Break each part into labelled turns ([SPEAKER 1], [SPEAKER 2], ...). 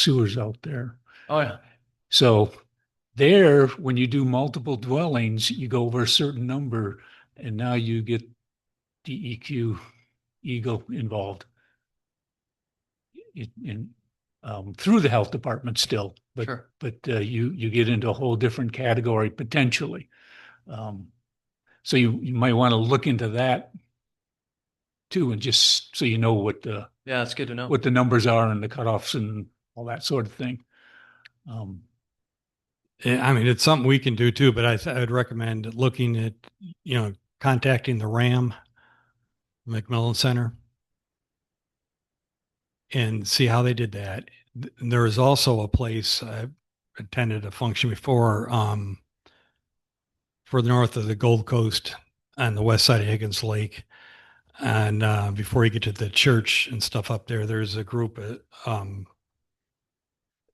[SPEAKER 1] sewers out there.
[SPEAKER 2] Oh, yeah.
[SPEAKER 1] So there, when you do multiple dwellings, you go over a certain number and now you get DEQ Eagle involved. In, in, um, through the health department still, but,
[SPEAKER 2] sure.
[SPEAKER 1] but, uh, you, you get into a whole different category potentially. Um, so you, you might want to look into that too, and just so you know what, uh,
[SPEAKER 2] Yeah, that's good to know.
[SPEAKER 1] what the numbers are and the cutoffs and all that sort of thing. Um,
[SPEAKER 3] Yeah, Eh, I mean, it's something we can do too, but I th- I'd recommend looking at, you know, contacting the RAM McMillan Center and see how they did that. Th- There is also a place I attended a function before, um, further north of the Gold Coast on the west side of Higgins Lake. And, uh, before you get to the church and stuff up there, there's a group, uh, um,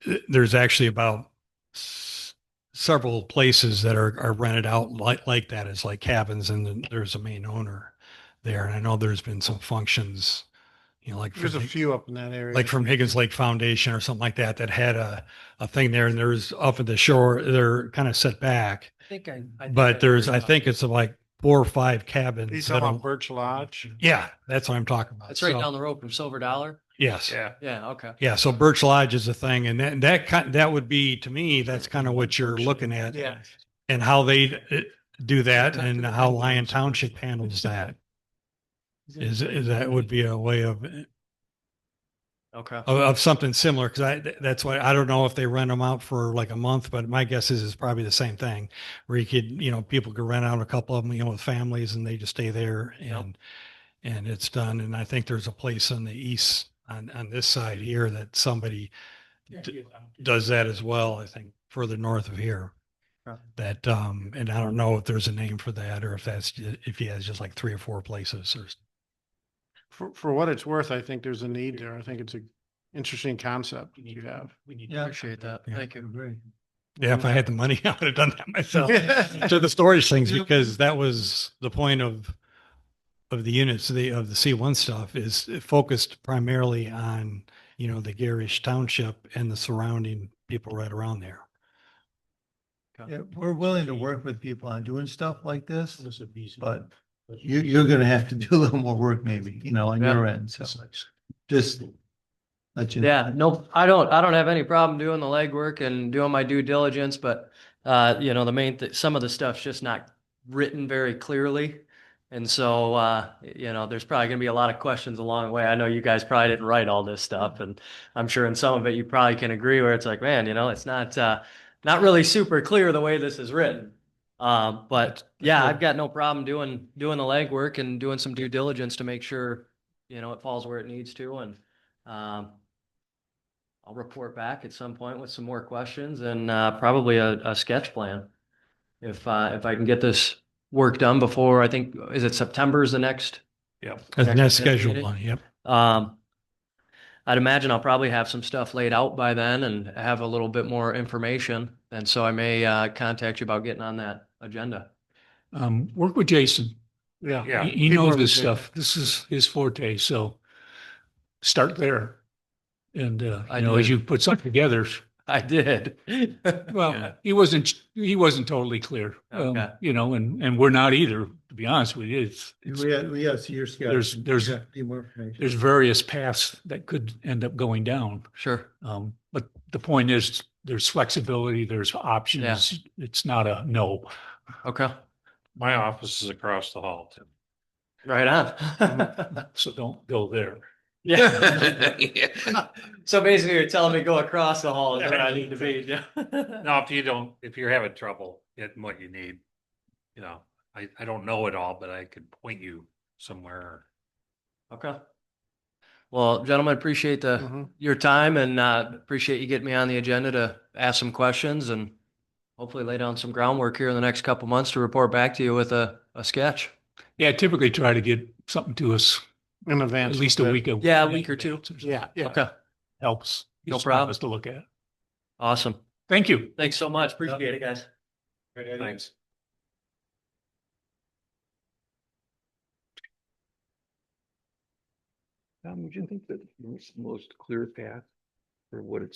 [SPEAKER 3] th- there's actually about s- several places that are, are rented out like, like that as like cabins and then there's a main owner there. And I know there's been some functions, you know, like. for
[SPEAKER 4] There's a
[SPEAKER 3] the-
[SPEAKER 4] few up in that area.
[SPEAKER 3] like from Higgins Lake Foundation or something like that that had a a thing there, and there's off at the shore they're kind of set back,
[SPEAKER 2] I think I, I think
[SPEAKER 3] but there's
[SPEAKER 2] heard
[SPEAKER 3] I
[SPEAKER 2] about
[SPEAKER 3] think
[SPEAKER 2] it.
[SPEAKER 3] it's like four or five cabins.
[SPEAKER 4] He's
[SPEAKER 3] that
[SPEAKER 4] talking about
[SPEAKER 3] are-
[SPEAKER 4] Birch Lodge.
[SPEAKER 3] yeah, that's what I'm talking about.
[SPEAKER 2] it's right
[SPEAKER 3] So,
[SPEAKER 2] down the road from Silver Dollar.
[SPEAKER 3] Yes,
[SPEAKER 4] Yeah.
[SPEAKER 2] Yeah. Okay.
[SPEAKER 3] yeah. So Birch Lodge is a thing, and that that kind that would be to me that's kind of what you're looking at,
[SPEAKER 4] Yeah.
[SPEAKER 3] and how they uh, do that,
[SPEAKER 2] Talk to
[SPEAKER 3] and
[SPEAKER 2] the
[SPEAKER 3] how
[SPEAKER 2] Penguins.
[SPEAKER 3] Lion Township handles that. Is, is that would be a way of
[SPEAKER 2] Okay.
[SPEAKER 3] of, of something similar because I th- that's why I don't know if they rent them out for like a month, but my guess is it's probably the same thing where you could you know people could rent out a couple of them you know with families and they just stay there
[SPEAKER 2] Yep.
[SPEAKER 3] and and it's done. And I think there's a place on the east on on this side here that somebody d- does that as well. I think further north of here.
[SPEAKER 2] Okay.
[SPEAKER 3] That um and I don't know if there's a name for that or if that's ju- if he has just like three or four places or s-
[SPEAKER 4] For, for what it's worth, I think there's a need there. I think it's a interesting concept you have.
[SPEAKER 2] Yeah. Appreciate that.
[SPEAKER 3] Yeah.
[SPEAKER 2] Thank you.
[SPEAKER 3] yeah if I had the money I would have done that myself.
[SPEAKER 4] Yeah.
[SPEAKER 3] to the storage things
[SPEAKER 2] Yeah.
[SPEAKER 3] because that was the point of of the units the of the C1 stuff is it focused primarily on you know the garish township and the surrounding people right around there.
[SPEAKER 5] Yeah, we're willing to work with people on doing stuff like this, but you, you're gonna have to do a little more work maybe, you know, on
[SPEAKER 2] Yeah.
[SPEAKER 5] your end, so just let you. know.
[SPEAKER 2] Yeah. No, I don't. I don't have any problem doing the legwork and doing my due diligence, but uh, you know, the main th- some of the stuff's just not written very clearly. And so, uh, you know, there's probably going to be a lot of questions along the way. I know you guys probably didn't write all this stuff, and I'm sure in some of it you probably can agree where it's like, man, you know, it's not uh, not really super clear the way this is written. Um, but yeah, I've got no problem doing doing the legwork and doing some due diligence to make sure you know it falls where it needs to, and um, I'll report back at some point with some more questions and uh, probably a, a sketch plan. If uh, if I can get this work done before, I think is it September is the next.
[SPEAKER 3] That's
[SPEAKER 2] Next
[SPEAKER 3] that's
[SPEAKER 2] to the
[SPEAKER 3] scheduled
[SPEAKER 2] meeting.
[SPEAKER 3] one. Yep.
[SPEAKER 2] Um, I'd imagine I'll probably have some stuff laid out by then and have a little bit more information, and so I may uh, contact you about getting on that agenda.
[SPEAKER 1] Um, work with Jason.
[SPEAKER 4] Yeah.
[SPEAKER 1] He, he
[SPEAKER 4] Keep
[SPEAKER 1] knows
[SPEAKER 4] working
[SPEAKER 1] this
[SPEAKER 4] with Jason.
[SPEAKER 1] stuff. This is his forte, so start there. And, uh,
[SPEAKER 2] I
[SPEAKER 1] you know, as you
[SPEAKER 2] did.
[SPEAKER 1] put something together,
[SPEAKER 2] I did. Yeah.
[SPEAKER 1] well, he wasn't, he wasn't totally clear. um,
[SPEAKER 2] Okay.
[SPEAKER 1] You know, and, and we're not either, to be honest with you. It's, it's-
[SPEAKER 5] We have, we have, so you're scared.
[SPEAKER 1] There's- there's-
[SPEAKER 5] Yeah, Need more information.
[SPEAKER 1] there's various paths that could end up going down.
[SPEAKER 2] sure.
[SPEAKER 1] Um, but the point is, there's flexibility, there's options. It's not a no.
[SPEAKER 2] Okay.
[SPEAKER 6] My office is across the hall. Tim.
[SPEAKER 2] Right on.
[SPEAKER 1] So don't go there.
[SPEAKER 2] yeah. so basically, you're telling me go across the hall is where I need to be. Yeah.
[SPEAKER 6] Now, if you don't, if you're having trouble getting what you need, you know, I, I don't know it all, but I could point you somewhere.
[SPEAKER 2] Okay. Well, gentlemen, appreciate the
[SPEAKER 4] Mhm.
[SPEAKER 2] your time and uh, appreciate you getting me on the agenda to ask some questions and hopefully lay down some groundwork here in the next couple months to report back to you with a, a sketch.
[SPEAKER 1] Yeah, I typically try to get something to us
[SPEAKER 4] In advance.
[SPEAKER 1] at
[SPEAKER 4] of
[SPEAKER 1] least a
[SPEAKER 4] that.
[SPEAKER 1] week.
[SPEAKER 2] Yeah, a week or two.
[SPEAKER 1] advance something.
[SPEAKER 4] Yeah, yeah.
[SPEAKER 2] Okay.
[SPEAKER 1] Helps.
[SPEAKER 2] No
[SPEAKER 1] Gives
[SPEAKER 2] problem.
[SPEAKER 1] us To look at.
[SPEAKER 2] Awesome.
[SPEAKER 1] Thank you.
[SPEAKER 2] Thanks so much. Appreciate it, guys.
[SPEAKER 6] Thanks.
[SPEAKER 7] Tom, would you think that the most- most clear path for what it's